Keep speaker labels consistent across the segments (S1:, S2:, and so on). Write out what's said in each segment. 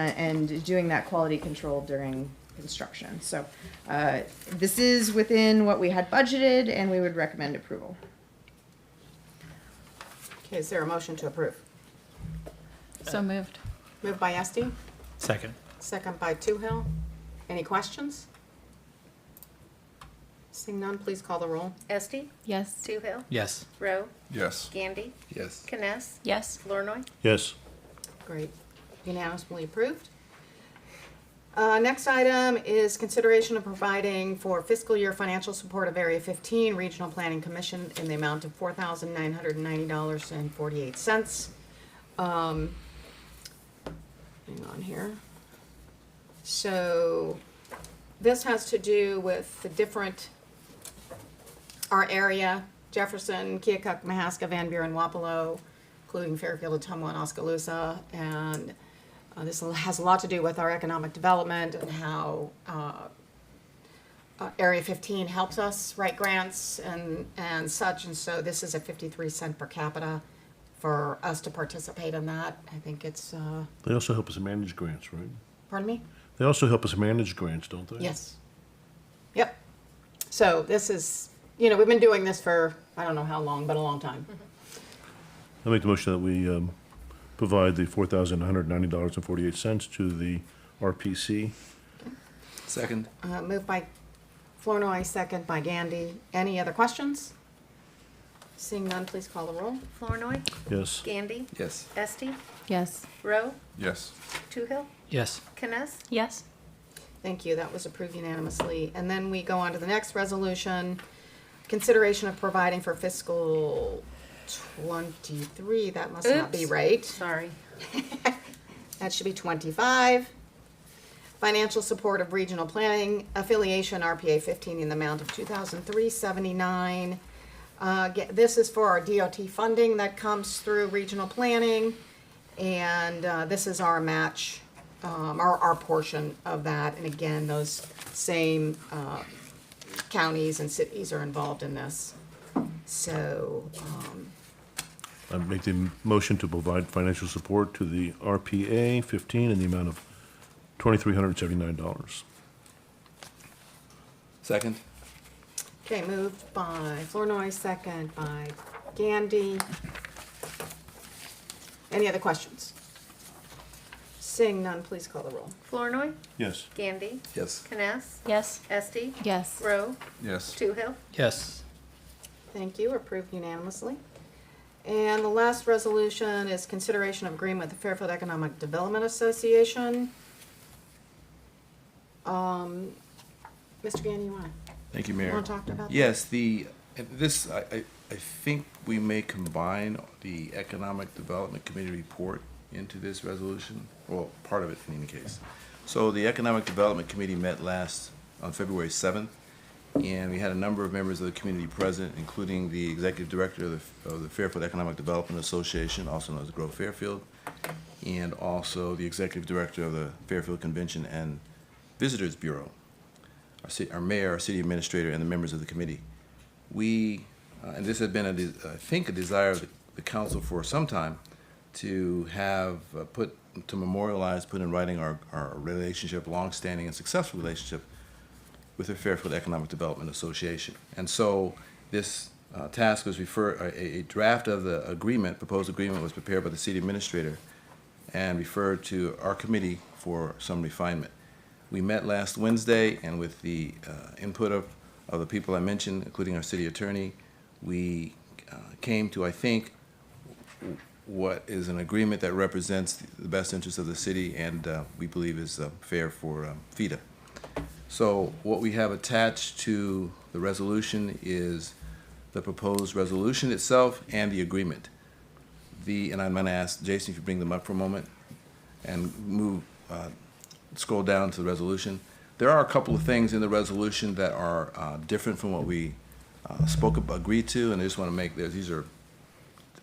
S1: and, and doing that quality control during construction. So uh, this is within what we had budgeted, and we would recommend approval.
S2: Okay, is there a motion to approve?
S3: So moved.
S2: Moved by Esti,
S4: Second.
S2: second by Toohill. Any questions? Seeing none, please call the roll.
S5: Esti,
S3: Yes.
S5: Toohill,
S4: Yes.
S5: Rowe,
S6: Yes.
S5: Gandy,
S6: Yes.
S5: Kness,
S3: Yes.
S5: Flournoy.
S7: yes,
S2: Great. Unanimously approved. Uh, Next item is consideration of providing for fiscal year financial support of Area 15 Regional Planning Commission in the amount of $4,990.48. Um, Hang on here. So this has to do with the different, our area, Jefferson, Keokuk, Mahaska, Van Buren, Wapello, including Fairfield, Atumwa, and Oskaloosa. And uh, this has a lot to do with our economic development and how uh, uh, Area 15 helps us write grants and, and such. And so this is a 53 cent per capita for us to participate in that. I think it's, uh,
S7: they also help us manage grants, right?
S2: pardon me?
S7: They also help us manage grants, don't they?
S2: Yes. Yep. So this is, you know, we've been doing this for, I don't know how long, but a long time.
S7: I make the motion that we um, provide the four thousand one hundred ninety dollars and forty-eight cents to the RPC.
S6: Second.
S2: Uh, Moved by Flornoy, second by Gandy. Any other questions? Seeing none, please call the roll.
S5: Flournoy,
S7: Yes,
S5: Gandy,
S6: Yes.
S5: Esti,
S3: Yes.
S5: Rowe,
S6: Yes.
S5: Toohill,
S4: Yes.
S5: Kness,
S3: Yes.
S2: Thank you, that was approved unanimously. And then we go on to the next resolution. Consideration of providing for fiscal twenty-three, that must not be
S5: Oops.
S2: right.
S5: sorry.
S2: That should be 25. Financial support of regional planning affiliation, RPA 15, in the amount of 2,379. Uh, ge- This is for our DOT funding that comes through regional planning, and uh, this is our match, um, our, our portion of that. And again, those same uh, counties and cities are involved in this. So, um,
S7: I make the motion to provide financial support to the RPA fifteen in the amount of twenty-three hundred seventy-nine dollars.
S6: Second.
S2: Okay, moved by Flournoy, second by Gandy. Any other questions? Seeing none, please call the roll.
S5: Flournoy,
S7: Yes.
S5: Gandy,
S6: Yes.
S5: Kness,
S3: Yes.
S5: Esti,
S3: Yes.
S5: Rowe,
S6: Yes.
S5: Toohill.
S4: Yes.
S2: Thank you, approved unanimously. And the last resolution is consideration of agreement with the Fairfield Economic Development Association. Um, Mr. Gandy, you wanna,
S6: Thank you,
S2: you
S6: Mayor.
S2: wanna talk about that?
S6: Yes, the, this, I, I, I think we may combine the Economic Development Committee report into this resolution, well, part of it in any case. So the Economic Development Committee met last, on February seventh, and we had a number of members of the community present, including the Executive Director of the, of the Fairfield Economic Development Association, also known as Grow Fairfield, and also the Executive Director of the Fairfield Convention and Visitors Bureau our, ci- our mayor, our city administrator, and the members of the committee. We, uh, and this had been, a de- I think, a desire of the, the council for some time to have uh, put, to memorialize, put in writing our, our relationship, longstanding and successful relationship with the Fairfield Economic Development Association. And so this uh, task was referred, a, a draft of the agreement, proposed agreement was prepared by the city administrator and referred to our committee for some refinement. We met last Wednesday, and with the uh, input of, of the people I mentioned, including our city attorney, we uh, came to, I think, what is an agreement that represents the best interests of the city and uh, we believe is uh, fair for um, FIDA. So what we have attached to the resolution is the proposed resolution itself and the agreement. The, and I'm going to ask Jason if you bring them up for a moment and move, uh, scroll down to the resolution. There are a couple of things in the resolution that are uh, different from what we uh, spoke, ab- agreed to, and I just want to make, there's- these are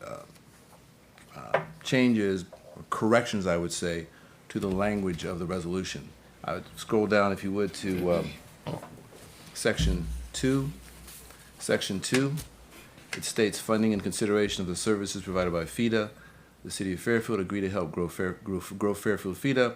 S6: uh, changes, or corrections, I would say, to the language of the resolution. I would scroll down, if you would, to um, section two. Section two, it states funding and consideration of the services provided by FIDA. The city of Fairfield agreed to help grow Fair, grow, grow Fairfield FIDA